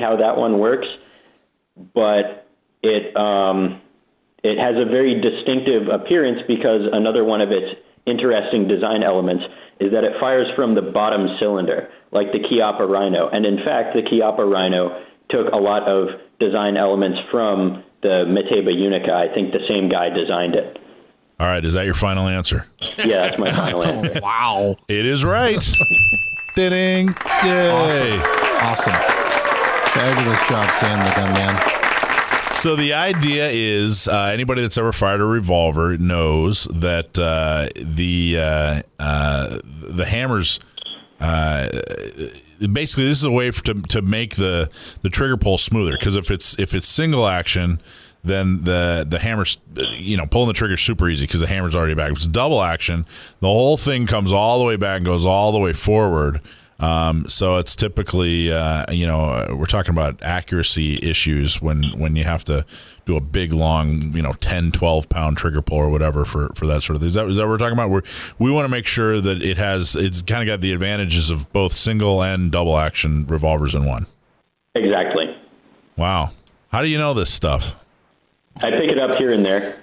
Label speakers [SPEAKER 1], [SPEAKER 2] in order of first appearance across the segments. [SPEAKER 1] how that one works, but it, um, it has a very distinctive appearance because another one of its interesting design elements is that it fires from the bottom cylinder, like the Chiappa Rhino. And in fact, the Chiappa Rhino took a lot of design elements from the Meteba Unica. I think the same guy designed it.
[SPEAKER 2] All right, is that your final answer?
[SPEAKER 1] Yeah, that's my final answer.
[SPEAKER 3] wow.
[SPEAKER 2] It is right. Ding. Yay.
[SPEAKER 3] Awesome. Fabulous job, Sam the gun man.
[SPEAKER 2] So the idea is uh, anybody that's ever fired a revolver knows that uh, the uh, uh, the hammers. Uh, basically, this is a way for, to to make the the trigger pull smoother because if it's if it's single action, then the the hammer's you know pulling the trigger super easy because the hammer's already back. If it's double action, the whole thing comes all the way back and goes all the way forward. Um, so it's typically, uh, you know, uh, we're talking about accuracy issues when, when you have to do a big, long, you know, 10, 12 pound trigger pull or whatever for, for that sort of thing. Is that, is that what we're talking about? We're, we want to make sure that it has, it's kind of got the advantages of both single and double action revolvers in one.
[SPEAKER 1] Exactly.
[SPEAKER 2] Wow. How do you know this stuff?
[SPEAKER 1] I pick it up here and there.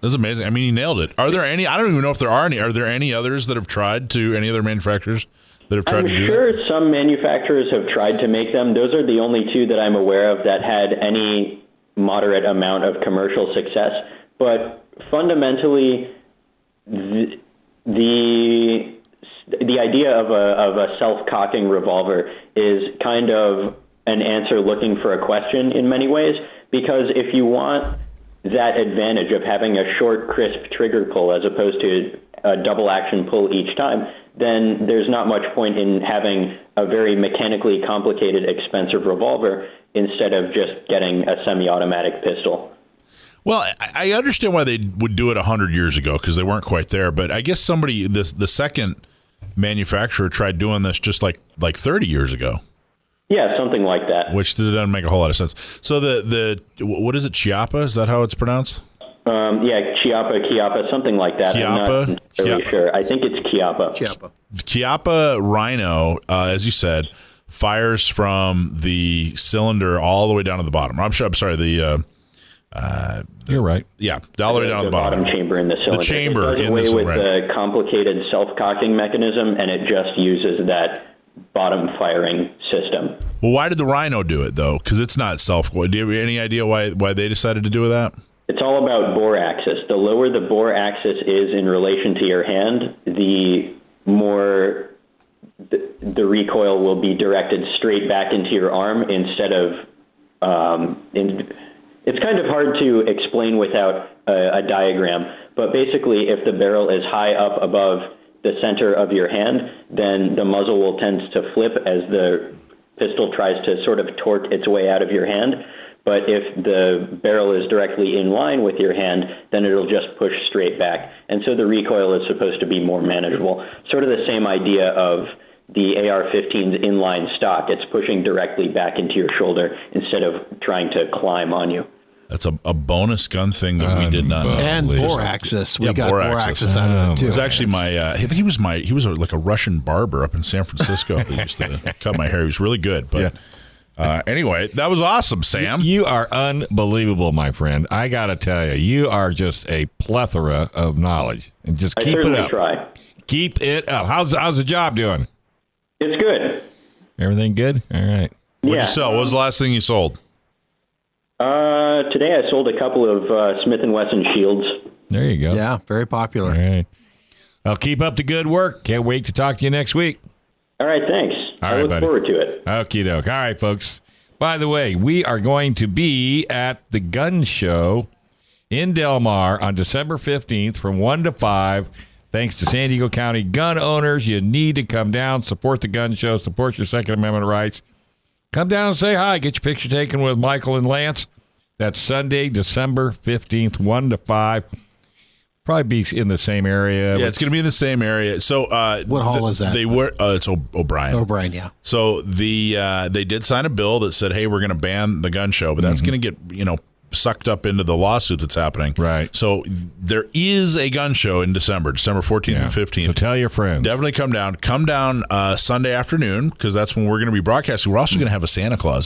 [SPEAKER 2] That's amazing. I mean, you nailed it. Are there any, I don't even know if there are any, are there any others that have tried to, any other manufacturers that have tried
[SPEAKER 1] I'm
[SPEAKER 2] to do that?
[SPEAKER 1] sure some manufacturers have tried to make them. Those are the only two that I'm aware of that had any moderate amount of commercial success. But fundamentally, the the, the idea of a, of a self cocking revolver is kind of an answer looking for a question in many ways, because if you want that advantage of having a short, crisp trigger pull as opposed to a double action pull each time, then there's not much point in having a very mechanically complicated, expensive revolver instead of just getting a semi automatic pistol.
[SPEAKER 2] Well, I I understand why they would do it 100 years ago because they weren't quite there. But I guess somebody, this, the second manufacturer tried doing this just like, like 30 years ago,
[SPEAKER 1] Yeah, something like that.
[SPEAKER 2] which doesn't make a whole lot of sense. So the, the what is it, Chiapa? Is that how it's pronounced?
[SPEAKER 1] Um, yeah, Chiapa, Chiapa, something like that. I'm
[SPEAKER 2] Chiapa?
[SPEAKER 1] not really
[SPEAKER 2] Chiapa.
[SPEAKER 1] sure. I think it's Chiapa.
[SPEAKER 3] Chiappa.
[SPEAKER 2] Chiapa Rhino, uh, as you said, fires from the cylinder all the way down to the bottom. I'm sure, I'm sorry, the, uh,
[SPEAKER 3] You're right.
[SPEAKER 2] yeah, all the way down to the bottom.
[SPEAKER 1] chamber in the cylinder.
[SPEAKER 2] chamber
[SPEAKER 1] it does
[SPEAKER 2] in the
[SPEAKER 1] away with
[SPEAKER 2] cylinder.
[SPEAKER 1] the complicated self-cocking mechanism, and it just uses that bottom firing system.
[SPEAKER 2] Well, why did the Rhino do it, though? Because it's not self. Do you have any idea why, why they decided to do that?
[SPEAKER 1] It's all about bore axis. The lower the bore axis is in relation to your hand, the more the, the recoil will be directed straight back into your arm instead of. Um, in, it's kind of hard to explain without a, a diagram, but basically, if the barrel is high up above the center of your hand, then the muzzle will tend to flip as the pistol tries to sort of torque its way out of your hand. But if the barrel is directly in line with your hand, then it'll just push straight back. And so the recoil is supposed to be more manageable. Sort of the same idea of the AR 15's inline stock. It's pushing directly back into your shoulder instead of trying to climb on you.
[SPEAKER 2] That's a, a bonus gun thing that we did not know.
[SPEAKER 3] And
[SPEAKER 2] Just-
[SPEAKER 3] Boraxis. We
[SPEAKER 2] Yeah,
[SPEAKER 3] got
[SPEAKER 2] Boraxis.
[SPEAKER 3] Boraxis out of it, too.
[SPEAKER 2] It was actually my. Uh, I think he was my. He was a, like a Russian barber up in San Francisco that used to cut my hair. He was really good. But uh, anyway, that was awesome, Sam.
[SPEAKER 4] You are unbelievable, my friend. I got to tell you, you are just a plethora of knowledge. And just
[SPEAKER 1] I
[SPEAKER 4] keep it
[SPEAKER 1] certainly
[SPEAKER 4] up.
[SPEAKER 1] try.
[SPEAKER 4] Keep it up. How's how's the job doing?
[SPEAKER 1] It's good.
[SPEAKER 4] Everything good? All right.
[SPEAKER 1] yeah.
[SPEAKER 2] What'd you sell? What was the last thing you sold?
[SPEAKER 1] Uh, today I sold a couple of uh, Smith and Wesson shields.
[SPEAKER 4] There you go.
[SPEAKER 3] Yeah, very
[SPEAKER 4] All
[SPEAKER 3] popular.
[SPEAKER 4] right. Well, keep up the good work. Can't wait to talk to you next week.
[SPEAKER 1] All right, thanks.
[SPEAKER 4] All
[SPEAKER 1] I
[SPEAKER 4] right,
[SPEAKER 1] look
[SPEAKER 4] buddy.
[SPEAKER 1] forward to it.
[SPEAKER 4] Okie doke. All right, folks. By the way, we are going to be at the gun show in Del Mar on December 15th from 1 to 5. Thanks to San Diego County gun owners. You need to come down, support the gun show, support your Second Amendment rights. Come down and say hi. Get your picture taken with Michael and Lance. That's Sunday, December 15th, 1 to 5. Probably be in the same area.
[SPEAKER 2] Yeah, it's going to be in the same area. So uh,
[SPEAKER 3] What hall is that?
[SPEAKER 2] They were. Uh, it's o- O'Brien.
[SPEAKER 3] O'Brien, Oh, yeah.
[SPEAKER 2] So the uh, they did sign a bill that said, "Hey, we're going to ban the gun show," but that's going to get you know sucked up into the lawsuit that's happening.
[SPEAKER 4] Right.
[SPEAKER 2] So there is a gun show in December, December fourteenth
[SPEAKER 4] Yeah.
[SPEAKER 2] and fifteenth.
[SPEAKER 4] So tell your friends.
[SPEAKER 2] Definitely come down. Come down uh, Sunday afternoon because that's when we're going to be broadcasting. We're also going to have a Santa Claus